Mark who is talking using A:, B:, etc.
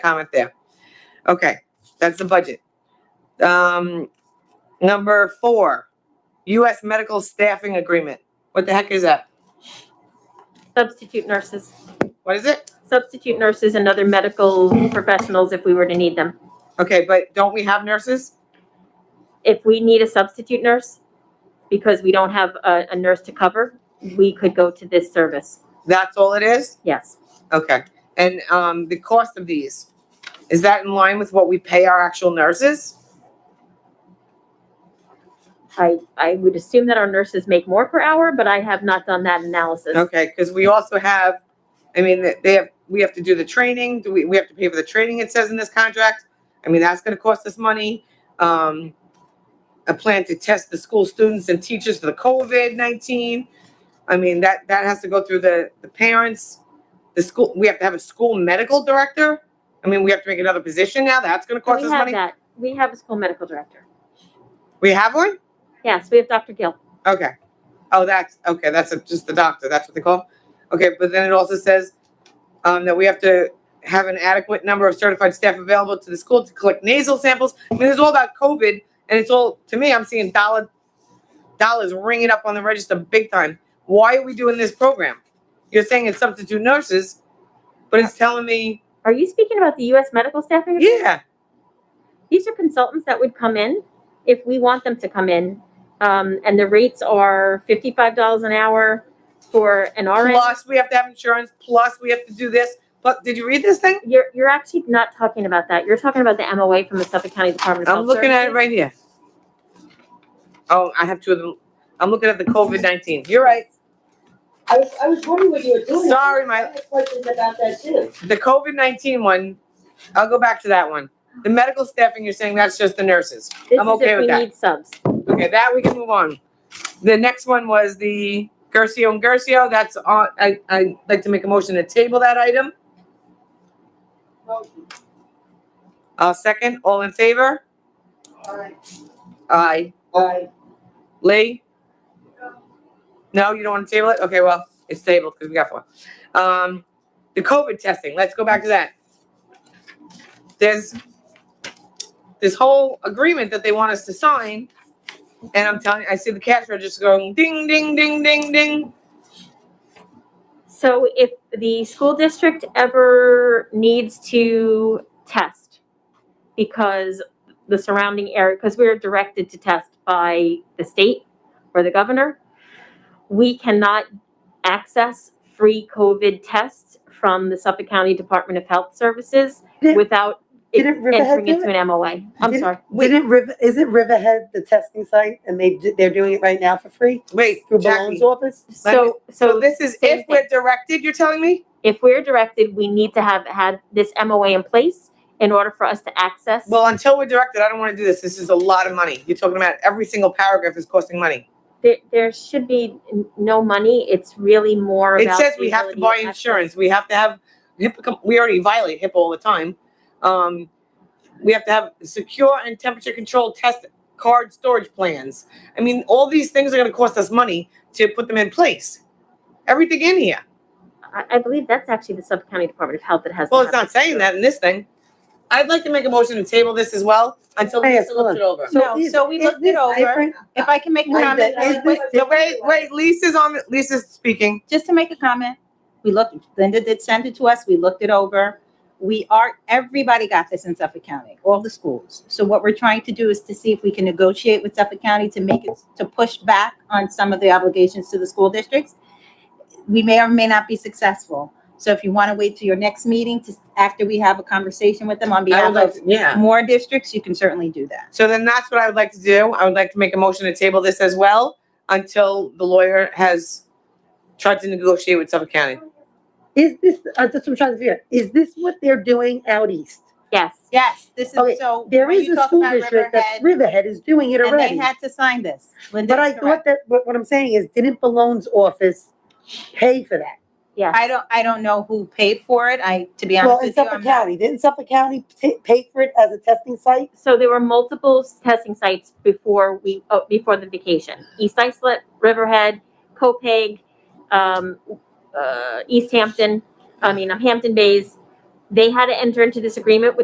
A: comment there. Okay, that's the budget. Um, number four, US medical staffing agreement. What the heck is that?
B: Substitute nurses,
A: What is it?
B: substitute nurses and other medical professionals if we were to need them.
A: Okay, but don't we have nurses?
B: If we need a substitute nurse, because we don't have a, a nurse to cover, we could go to this service,
A: That's all it is?
B: yes.
A: Okay, and, um, the cost of these, is that in line with what we pay our actual nurses?
B: I, I would assume that our nurses make more per hour, but I have not done that analysis.
A: Okay, because we also have, I mean, they- they have, we have to do the training, do we, we have to pay for the training, it says in this contract. I mean, that's gonna cost us money. Um, a plan to test the school students and teachers for the COVID nineteen. I mean, that, that has to go through the, the parents, the school, we have to have a school medical director. I mean, we have to make another position now, that's gonna cost
B: We
A: us
B: have
A: money.
B: that, we have a school medical director.
A: We have one?
B: Yes, we have Dr. Gill.
A: Okay. Oh, that's, okay, that's a- just the doctor, that's what they call? Okay, but then it also says, um, that we have to have an adequate number of certified staff available to the school to collect nasal samples. I mean, it's all about COVID, and it's all, to me, I'm seeing dollar, dollars ringing up on the register big time. Why are we doing this program? You're saying it's substitute nurses, but it's telling me,
B: Are you speaking about the US medical staffing? agreement?
A: yeah,
B: These are consultants that would come in if we want them to come in. Um, and the rates are fifty-five dollars an hour for an RN.
A: plus we have to have insurance, plus we have to do this, but, did you read this thing?
B: You're, you're actually not talking about that. You're talking about the MOA from the Suffolk County Department of
A: I'm
B: Health
A: looking at it
B: Services.
A: right here. Oh, I have two of them. I'm looking at the COVID nineteen. You're right.
C: I was, I was wondering what you were doing.
A: Sorry, my-
C: I had questions about that too.
A: The COVID nineteen one, I'll go back to that one. The medical staffing, you're saying that's just the nurses. I'm
B: This is
A: okay
B: if
A: with
B: we
A: that.
B: need subs.
A: Okay, that we can move on. The next one was the Gercio and Gercio. That's on, I, I'd like to make a motion to table that item. I'll Uh, second. All in favor?
C: Alright.
A: Aye.
C: Alright,
A: Lee? No, you don't want to table it? Okay, well, it's tabled because we got four. Um, the COVID testing, let's go back to that. There's this whole agreement that they want us to sign. And I'm telling you, I see the cash register going ding, ding, ding, ding, ding.
B: So if the school district ever needs to test because the surrounding area, because we're directed to test by the state or the governor, we cannot access free COVID tests from the Suffolk County Department of Health Services
D: Did-
B: without it
D: didn't Riverhead
B: entering
D: do
B: into an MOA. I'm
D: Didn't-
B: sorry.
D: Didn't River, isn't Riverhead the testing site and they, did- they're doing it right now for free
A: Wait,
D: through
A: Jackie.
D: Balon's office?
B: So,
A: So
B: so
A: this is
B: same
A: if we're directed, you're telling me?
B: if we're directed, we need to have had this MOA in place in order for us to access.
A: Well, until we're directed, I don't want to do this. This is a lot of money. You're talking about every single paragraph is costing money.
B: There, there should be n- no money, it's really more
A: It
B: about.
A: says
B: the
A: we have to
B: ability
A: buy
B: access.
A: insurance, we have to have HIPAA, com- we already violate HIPAA all the time. Um, we have to have secure and temperature controlled test card storage plans. I mean, all these things are gonna cost us money to put them in place. Everything in here.
B: I, I believe that's actually the Suffolk County Department of Health that has. to
A: Well, it's
B: have
A: not saying that in this thing. I'd like to make a motion to table this as well until
D: Hey,
A: Lisa looks
D: hold
A: it over.
D: So
E: No,
D: is-
E: so we
D: is
E: looked
D: this
E: it over.
D: different?
E: If I can make a
D: Wait,
E: comment,
D: but is
E: wait,
D: this
A: No, Wait, wait, Lisa's on, Lisa's speaking.
E: just to make a comment, we looked, Linda did send it to us, we looked it over. We are, everybody got this in Suffolk County, all the schools. So what we're trying to do is to see if we can negotiate with Suffolk County to make it, to push back on some of the obligations to the school districts. We may or may not be successful. So if you want to wait till your next meeting to, after we have a conversation with them on
A: I would
E: behalf
A: like
E: of
A: to- Yeah.
E: more districts, you can certainly do that.
A: So then that's what I would like to do. I would like to make a motion to table this as well until the lawyer has tried to negotiate with Suffolk County.
D: Is this, uh, that's what I'm trying to figure, out. is this what they're doing out east?
B: it. Yes,
E: Yes, this is,
D: Okay,
E: so.
D: There
E: when
D: is
E: you
D: a
E: talk
D: school
E: about
D: district that
E: Riverhead,
D: Riverhead is doing it
E: And they
D: already.
E: had to sign this. Linda
D: But I
E: is correct.
D: thought that, what, what I'm saying is, didn't Balon's office pay for that?
E: I don't, I don't know who paid for it. I, to be
D: Well,
E: honest
D: in
E: with you,
D: Suffolk
E: I'm not.
D: County, didn't Suffolk County ta- pay for it as a testing site?
B: so there were multiple s- testing sites before we, oh, before the vacation. East Islip, Riverhead, Copeg, um, uh, East Hampton, I mean, um, Hampton Bays. they had to enter into this agreement with